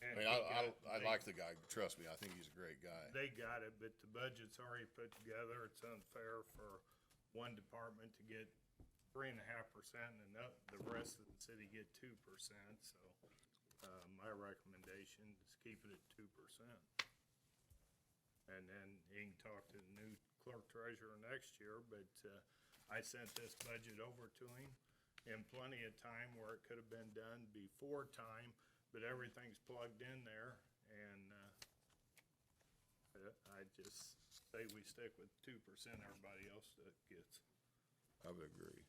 mean, they I, got- I, I they- like the guy, trust me, I think he's a great guy. They got it, but the budget's already put together. It's unfair for one department to get three and a half percent and the the rest of the city get two percent, so, uh, my recommendation is keep it at two percent. And then you can talk to the new clerk treasurer next year, but, uh, I sent this budget over to him in plenty of time where it could have been done before time, but everything's plugged in there and, uh, uh, I just say we stick with two percent, everybody else that gets. I would agree.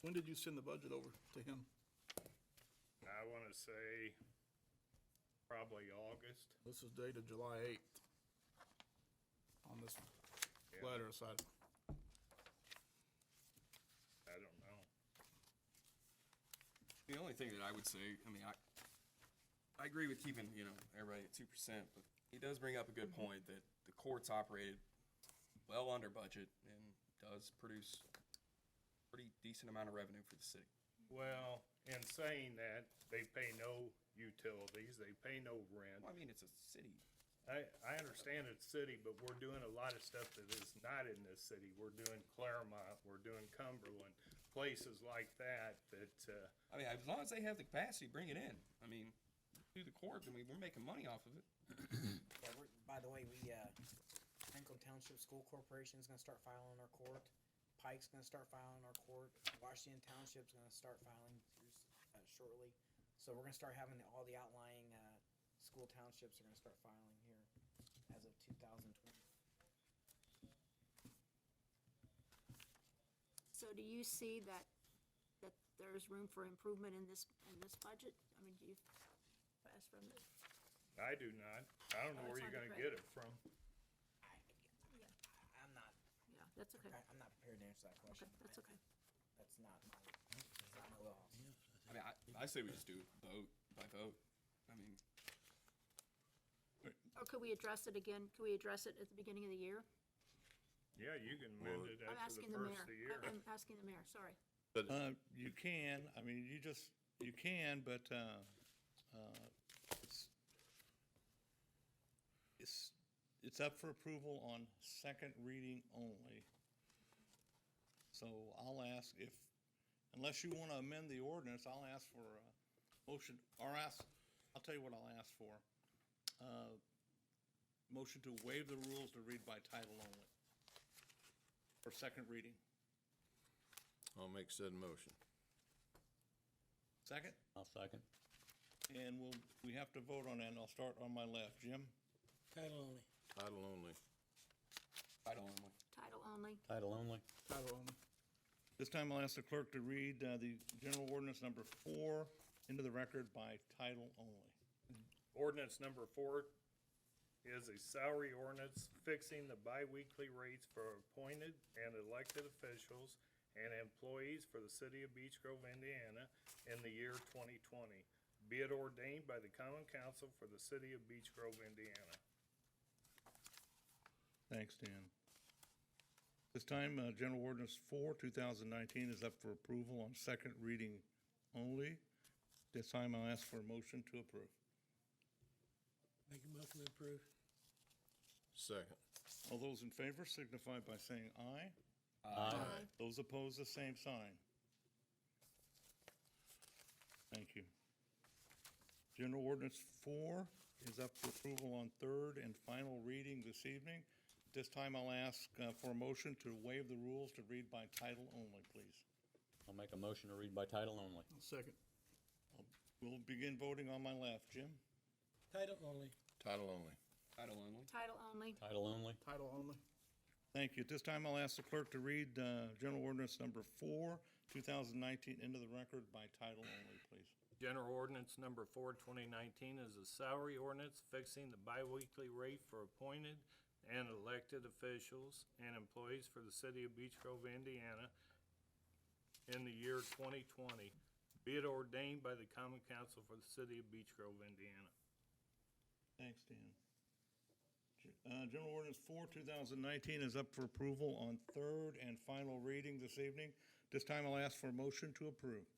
When did you send the budget over to him? I wanna say probably August. This is dated July eighth. On this Yeah, letter side, I don't know. The only thing that I would say, I mean, I, I agree with keeping, you know, everybody at two percent, but he does bring up a good point that the courts operated well under budget and does produce pretty decent amount of revenue for the city. Well, in saying that, they pay no utilities, they pay no rent. Well, I mean, it's a city. I, I understand it's city, but we're doing a lot of stuff that is not in this city. We're doing Claremont, we're doing Cumberland, places like that, that, uh, I mean, as long as they have the capacity, bring it in. I mean, through the court, I mean, we're making money off of it. Yeah, we're, by the way, we, uh, Franklin Township School Corporation's gonna start filing our court. Pike's gonna start filing our court. Washington Township's gonna start filing uh, shortly. So we're gonna start having all the outlying, uh, school townships are gonna start filing here as of two thousand twenty. So do you see that, that there's room for improvement in this, in this budget? I mean, do you, as from, the- I do not. I don't know Oh, where it's you're on gonna the print. get it from. I, yeah, I'm not, yeah, that's okay. I- I'm not prepared to answer that Okay, question. that's okay. That's not, my- that's not my law. I mean, I, I say we just do it vote by vote. I mean, Or could we address it again? Could we address it at the beginning of the year? Yeah, you can amend it I'm after the asking the first of the mayor. year. I- I'm asking the mayor, sorry. Uh, you can, I mean, you just, you can, but, uh, uh, it's, it's, it's up for approval on second reading only. So I'll ask if, unless you want to amend the ordinance, I'll ask for a motion, or ask, I'll tell you what I'll ask for. Uh, Motion to waive the rules to read by title only. For second reading. I'll make said motion. Second? I'll second. And we'll, we have to vote on that, and I'll start on my left. Jim? Title only. Title only. title only. Title only, Title only. title only. This time I'll ask the clerk to read uh, the general ordinance number four into the record by title only. Ordinance number four is a salary ordinance fixing the biweekly rates for appointed and elected officials and employees for the city of Beech Grove, Indiana in the year twenty twenty. Be it ordained by the common council for the city of Beech Grove, Indiana. Thanks, Dan. This time, uh, general ordinance four, two thousand nineteen is up for approval on second reading only. This time I'll ask for a motion to approve. Make a motion to approve. Second. All those in favor signify by saying aye. Aye. Those opposed, the same sign. Thank you. General Ordinance 4 is up for approval on third and final reading this evening. At This time, I'll ask uh, for a motion to waive the rules to read by title only, please. I'll make a motion to read by title only. I'll Second, We'll begin voting on my left. Jim? Title only. Title only. Title only. title only, Title only. title only. Thank you. At this time, I'll ask the clerk to read uh, General Ordinance Number 4, 2019, into the record by title only, please. General ordinance number four, twenty nineteen is a salary ordinance fixing the biweekly rate for appointed and elected officials and employees for the city of Beech Grove, Indiana in the year twenty twenty, be it ordained by the common council for the city of Beech Grove, Indiana. Thanks, Dan. Uh, General Ordinance 4, 2019 is up for approval on third and final reading this evening. This time I'll ask for a motion to approve.